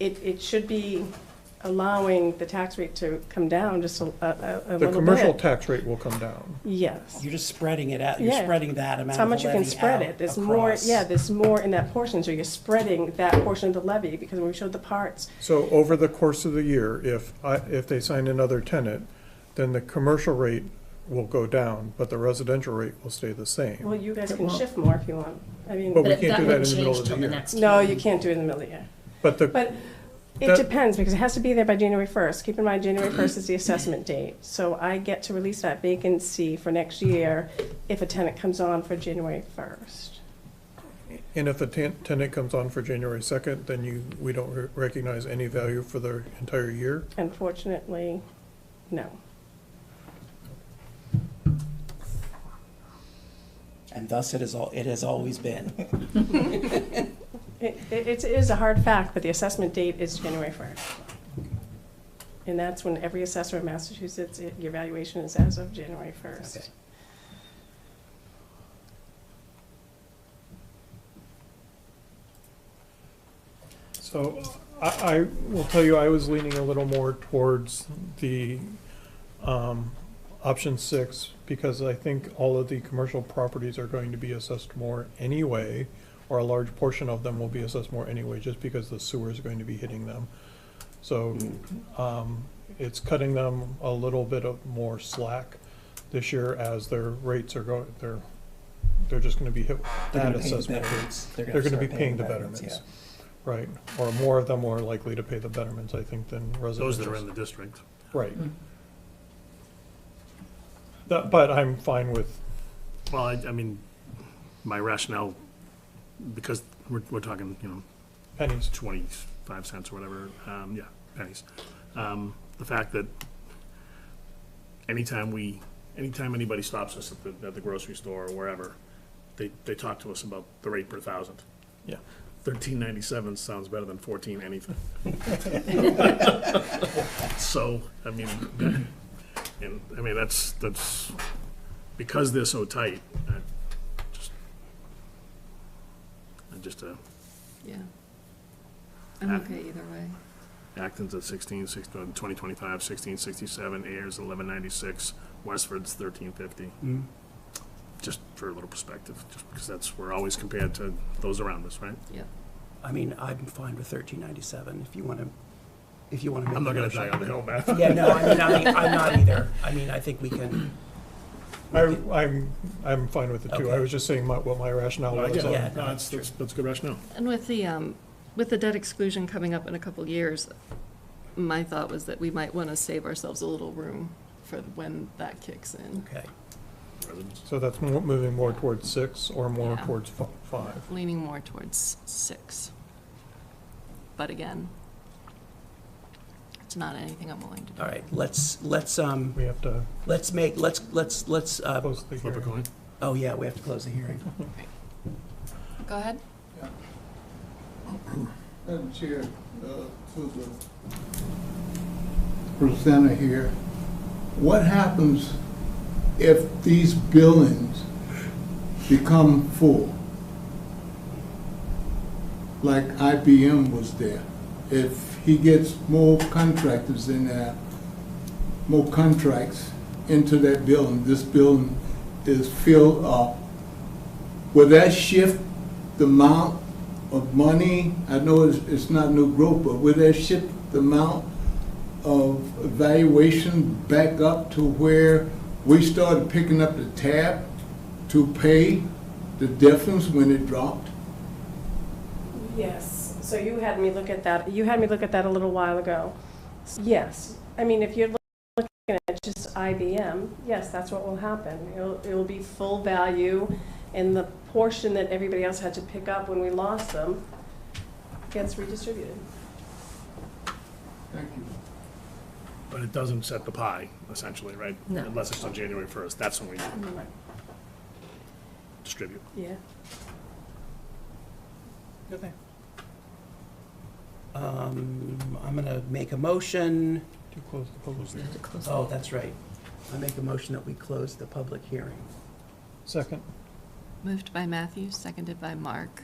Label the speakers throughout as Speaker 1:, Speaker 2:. Speaker 1: it, it should be allowing the tax rate to come down just a, a- a, a little
Speaker 2: The
Speaker 1: bit.
Speaker 2: commercial tax rate will come down.
Speaker 1: Yes.
Speaker 3: You're just spreading it out, you're
Speaker 1: Yeah.
Speaker 3: spreading that amount
Speaker 1: It's how
Speaker 3: of the
Speaker 1: much you can
Speaker 3: levy
Speaker 1: spread
Speaker 3: out
Speaker 1: it. There's more,
Speaker 3: across.
Speaker 1: yeah, there's more in that portion, so you're spreading that portion of the levy, because when we showed the parts,
Speaker 2: So over the course of the year, if I, if they sign another tenant, then the commercial rate will go down, but the residential rate will stay the
Speaker 1: well,
Speaker 2: same.
Speaker 1: you guys can shift more if you want. I
Speaker 2: But
Speaker 1: mean,
Speaker 2: we can't
Speaker 4: But that
Speaker 2: do that
Speaker 4: won't
Speaker 2: in the middle of
Speaker 4: change
Speaker 2: the
Speaker 4: till the
Speaker 2: year.
Speaker 4: next.
Speaker 1: no,
Speaker 4: year.
Speaker 1: you can't do it in the middle of the year.
Speaker 2: But the,
Speaker 1: But it
Speaker 2: That-
Speaker 1: depends, because it has to be there by January first. Keep in mind, January first is the assessment date. So I get to release that vacancy for next year if a tenant comes on for January first.
Speaker 2: and if the ten- tenant comes on for January second, then you, we don't re- recognize any value for the entire year?
Speaker 1: Unfortunately, no.
Speaker 3: And thus it is all, it has always been.
Speaker 1: It, it it's- it is a hard fact, but the assessment date is January first. And that's when every assessor in Massachusetts, it- your valuation is as of January
Speaker 3: Okay.
Speaker 1: first.
Speaker 2: So uh, I, I will tell you, I was leaning a little more towards the um, option six because I think all of the commercial properties are going to be assessed more anyway, or a large portion of them will be assessed more anyway, just because the sewer is going to be hitting them. So um, it's cutting them a little bit of more slack this year as their rates are going, they're, they're just going to be hit with
Speaker 3: They're
Speaker 2: that
Speaker 3: gonna pay the
Speaker 2: assessment.
Speaker 3: betterments.
Speaker 2: They're gonna be
Speaker 3: start
Speaker 2: paying the
Speaker 3: betterments,
Speaker 2: betterments, right, or more of them are likely to pay the betterments, I think, than residents.
Speaker 5: Those that are in the district.
Speaker 2: Right. That, but I'm fine with,
Speaker 5: Well, I, I mean, my rationale, because we're, we're talking, you know,
Speaker 2: pennies,
Speaker 5: twenty-five cents or whatever, um, yeah, pennies. Um, the fact that anytime we, anytime anybody stops us at the, at the grocery store or wherever, they, they talk to us about the rate per thousand.
Speaker 2: yeah.
Speaker 5: Thirteen ninety-seven sounds better than fourteen anything. So, I mean, that- and, I mean, that's, that's, because they're so tight, I just, I just, uh,
Speaker 6: Yeah. I'm
Speaker 5: Uh,
Speaker 6: okay either way.
Speaker 5: Acton's at sixteen, six, uh, twenty twenty-five, sixteen sixty-seven, Ayers eleven ninety-six, Westford's thirteen fifty.
Speaker 3: Mm.
Speaker 5: Just for a little perspective, just because that's, we're always compared to those around us, right?
Speaker 6: Yep.
Speaker 3: yeah. I mean, I'm fine with thirteen ninety-seven, if you wanna, if you wanna make.
Speaker 5: I'm not
Speaker 3: the
Speaker 5: gonna
Speaker 3: motion.
Speaker 5: die on the hill, man.
Speaker 3: Yeah, no, I mean, I, I'm not either. I mean, I think we can,
Speaker 2: I, I'm, I'm fine with the two, I
Speaker 3: Okay.
Speaker 2: was just saying my, what my rationale
Speaker 5: No, I
Speaker 2: was
Speaker 5: get it.
Speaker 2: on-
Speaker 3: Yeah.
Speaker 5: No, that's, that's, that's a good rationale.
Speaker 6: And with the, um, with the debt exclusion coming up in a couple years, my thought was that we might want to save ourselves a little room for when that kicks in.
Speaker 3: okay.
Speaker 5: Residents.
Speaker 2: So that's mo- moving more towards six or more
Speaker 6: Yeah.
Speaker 2: towards fi- five.
Speaker 6: Leaning more towards six. But again, it's not anything I'm willing to do.
Speaker 3: All right, let's, let's, um,
Speaker 2: We have to
Speaker 3: let's make, let's, let's, let's, uh,
Speaker 2: close the
Speaker 5: Flip a
Speaker 2: hearing.
Speaker 5: coin.
Speaker 3: oh yeah, we have to close the hearing.
Speaker 6: Go ahead.
Speaker 7: Madam Chair, uh, to the presenter here, what happens if these buildings become full? Like IBM was there. If he gets more contractors in there, more contracts into that building, this building is filled up, will that shift the amount of money? I know it's, it's not new growth, but will that shift the amount of valuation back up to where we started picking up the tab to pay the difference when it dropped?
Speaker 1: Yes, so you had me look at that, you had me look at that a little while ago. Yes, I mean, if you're looking at just IBM, yes, that's what will happen. It'll, it'll be full value, and the portion that everybody else had to pick up when we lost them gets redistributed.
Speaker 7: Thank you.
Speaker 5: But it doesn't set the pie, essentially, right?
Speaker 6: No.
Speaker 5: Unless it's on January first, that's when we distribute.
Speaker 1: Yeah.
Speaker 3: Um, I'm gonna make a motion.
Speaker 2: To close the public
Speaker 6: You have to close
Speaker 3: Oh,
Speaker 6: it.
Speaker 3: that's right. I make a motion that we close the public hearing.
Speaker 2: Second,
Speaker 6: Moved by Matthew, seconded by Mark.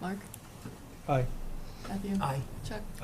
Speaker 6: Mark,
Speaker 2: aye.
Speaker 6: Matthew,
Speaker 3: Aye.
Speaker 6: Chuck?